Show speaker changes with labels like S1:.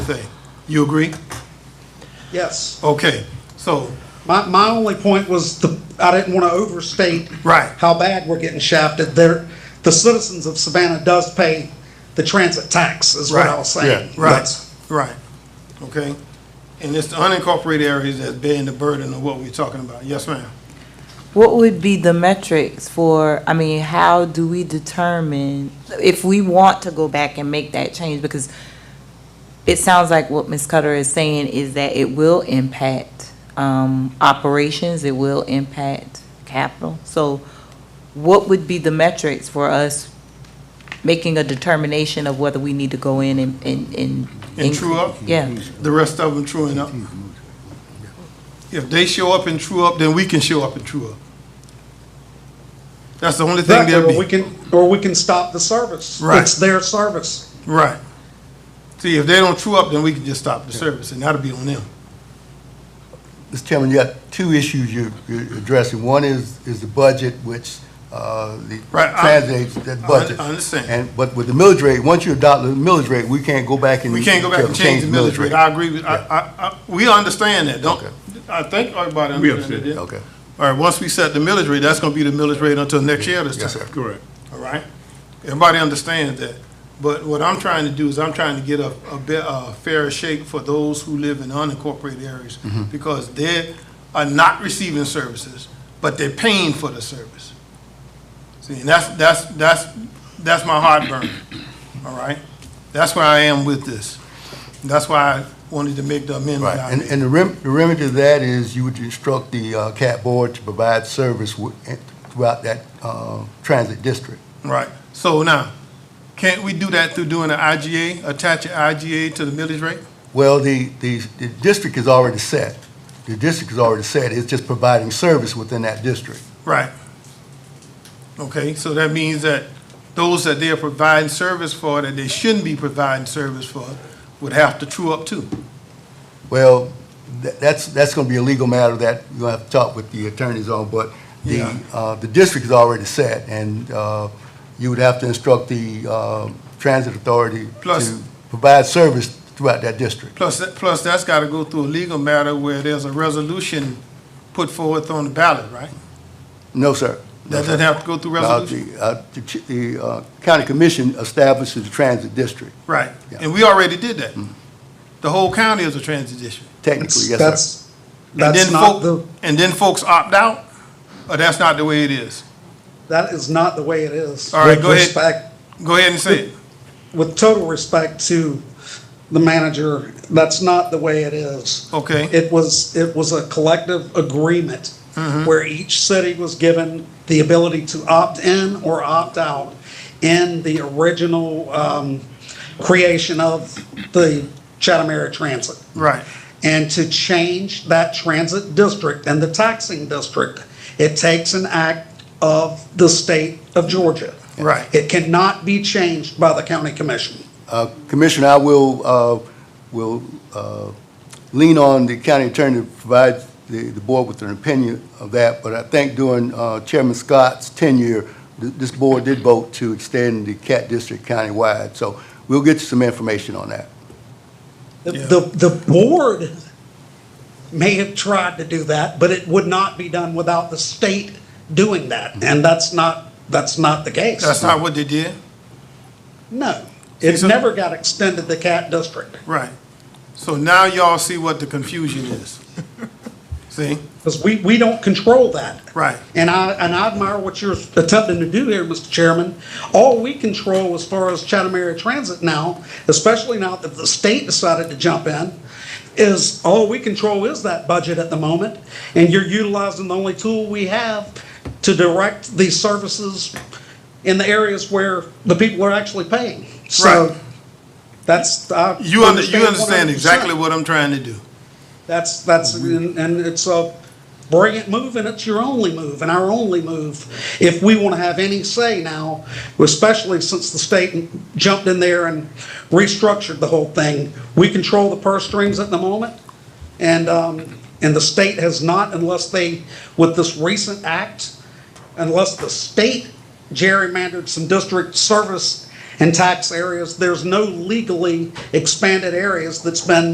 S1: thing. You agree?
S2: Yes.
S1: Okay, so,
S2: My, my only point was the, I didn't want to overstate.
S1: Right.
S2: How bad we're getting shafted. There, the citizens of Savannah does pay the transit tax is what I
S1: Right.
S2: was saying.
S1: right,
S2: That's-
S1: right, okay? And it's the unincorporated areas that's bearing the burden of what we're talking about. Yes, ma'am.
S3: What would be the metrics for, I mean, how do we determine if we want to go back and make that change? Because it sounds like what Ms. Cutter is saying is that it will impact um, operations, it will impact capital. So what would be the metrics for us making a determination of whether we need to go in and? And, and,
S1: And true up?
S3: Yeah,
S1: The rest of them truing up. If they show up and true up, then we can show up and true up. That's the only thing
S2: Exactly,
S1: they'll
S2: or we
S1: be,
S2: can, or we can stop the service.
S1: Right.
S2: It's their service.
S1: right. See, if they don't true up, then we can just stop the service, and that'll be on them.
S4: Mr. Chairman, you got two issues you're you're addressing. One is, is the budget, which uh, the
S1: Right, I-
S4: translates that
S1: I-
S4: budget.
S1: I understand.
S4: And, but with the millage rate, once you adopt the millage rate, we can't go back and.
S1: We can't go back and change the millage rate. I agree with, I, I, I, we understand that, don't,
S4: Okay.
S1: I think everybody
S5: We
S1: understands that.
S5: understand.
S4: Okay,
S1: All right, once we set the millage rate, that's gonna be the millage rate until next year this
S4: yes,
S1: time,
S4: sir.
S5: Correct.
S1: all right? Everybody understands that. But what I'm trying to do is I'm trying to get a, a be, a fair shake for those who live in unincorporated areas
S4: Mm-hmm.
S1: because they are not receiving services, but they're paying for the service. See, and that's, that's, that's, that's my heartburn, all right? That's where I am with this. That's why I wanted to make the amendment.
S4: Right,
S1: I
S4: and,
S1: made.
S4: and the rem- the remedy to that is you would instruct the uh, CAT board to provide service wi- throughout that uh, transit district.
S1: Right, so now, can't we do that through doing an IGA, attach an IGA to the millage rate?
S4: Well, the, the, the district is already set. The district is already set. It's just providing service within that district.
S1: Right. Okay, so that means that those that they are providing service for, that they shouldn't be providing service for, would have to true up too.
S4: Well, tha- that's, that's going to be a legal matter that you're going to have to talk with the attorneys on, but the,
S1: Yeah.
S4: uh, the district is already set, and uh, you would have to instruct the uh, transit authority
S1: Plus-
S4: to provide service throughout that district.
S1: Plus, that- plus that's gotta go through a legal matter where there's a resolution put forth on the ballot, right?
S4: No, sir. No,
S1: That
S4: sir.
S1: doesn't have to go through
S4: Now,
S1: resolution?
S4: the, uh, The ch- the, uh, county commission establishes the transit district,
S1: Right,
S4: Yeah.
S1: and we already did that.
S2: Mm.
S1: The whole county is a transit district.
S4: technically, yes, sir.
S2: That's,
S1: And
S2: that's
S1: then
S2: not
S1: folk,
S2: the,
S1: and then folks opt out? Or that's not the way it is?
S2: that is not the way it is.
S1: All right,
S2: With
S1: go ahead.
S2: respect-
S1: Go ahead and say it.
S2: With total respect to the manager, that's not the way it is.
S1: Okay.
S2: It was, it was a collective agreement
S1: Mm-hmm.
S2: where each city was given the ability to opt in or opt out in the original um, creation of the Chatham Area Transit.
S1: Right.
S2: And to change that transit district and the taxing district, it takes an act of the state of Georgia.
S1: Right.
S2: It cannot be changed by the county commission.
S4: Uh, Commissioner, I will, uh, will uh, lean on the county attorney to provide the, the board with an opinion of that, but I think during uh, Chairman Scott's tenure, th- this board did vote to extend the CAT district countywide, so we'll get you some information on that.
S2: The,
S1: Yeah.
S2: the the board may have tried to do that, but it would not be done without the state doing that. And that's not, that's not the case.
S1: Mm-hmm. That's not what they did?
S2: No. It's
S1: so-
S2: never got extended to Cat District.
S1: Right. So now y'all see what the confusion is. See?
S2: Because we, we don't control that.
S1: Right.
S2: And I, and I admire what you're attempting to do here, Mr. Chairman. All we control as far as Chatham Area Transit now, especially now that the state decided to jump in, is all we control is that budget at the moment. And you're utilizing the only tool we have to direct these services in the areas where the people are actually paying.
S1: Right.
S2: So that's, I
S1: You under, you understand
S2: 100%.
S1: exactly what I'm trying to do.
S2: That's, that's, and and it's a brilliant move, and it's your only move, and our only move, if we want to have any say now, especially since the state jumped in there and restructured the whole thing. We control the purse strings at the moment, and, um, and the state has not, unless they, with this recent act, unless the state gerrymandered some district service and tax areas. There's no legally expanded areas that's been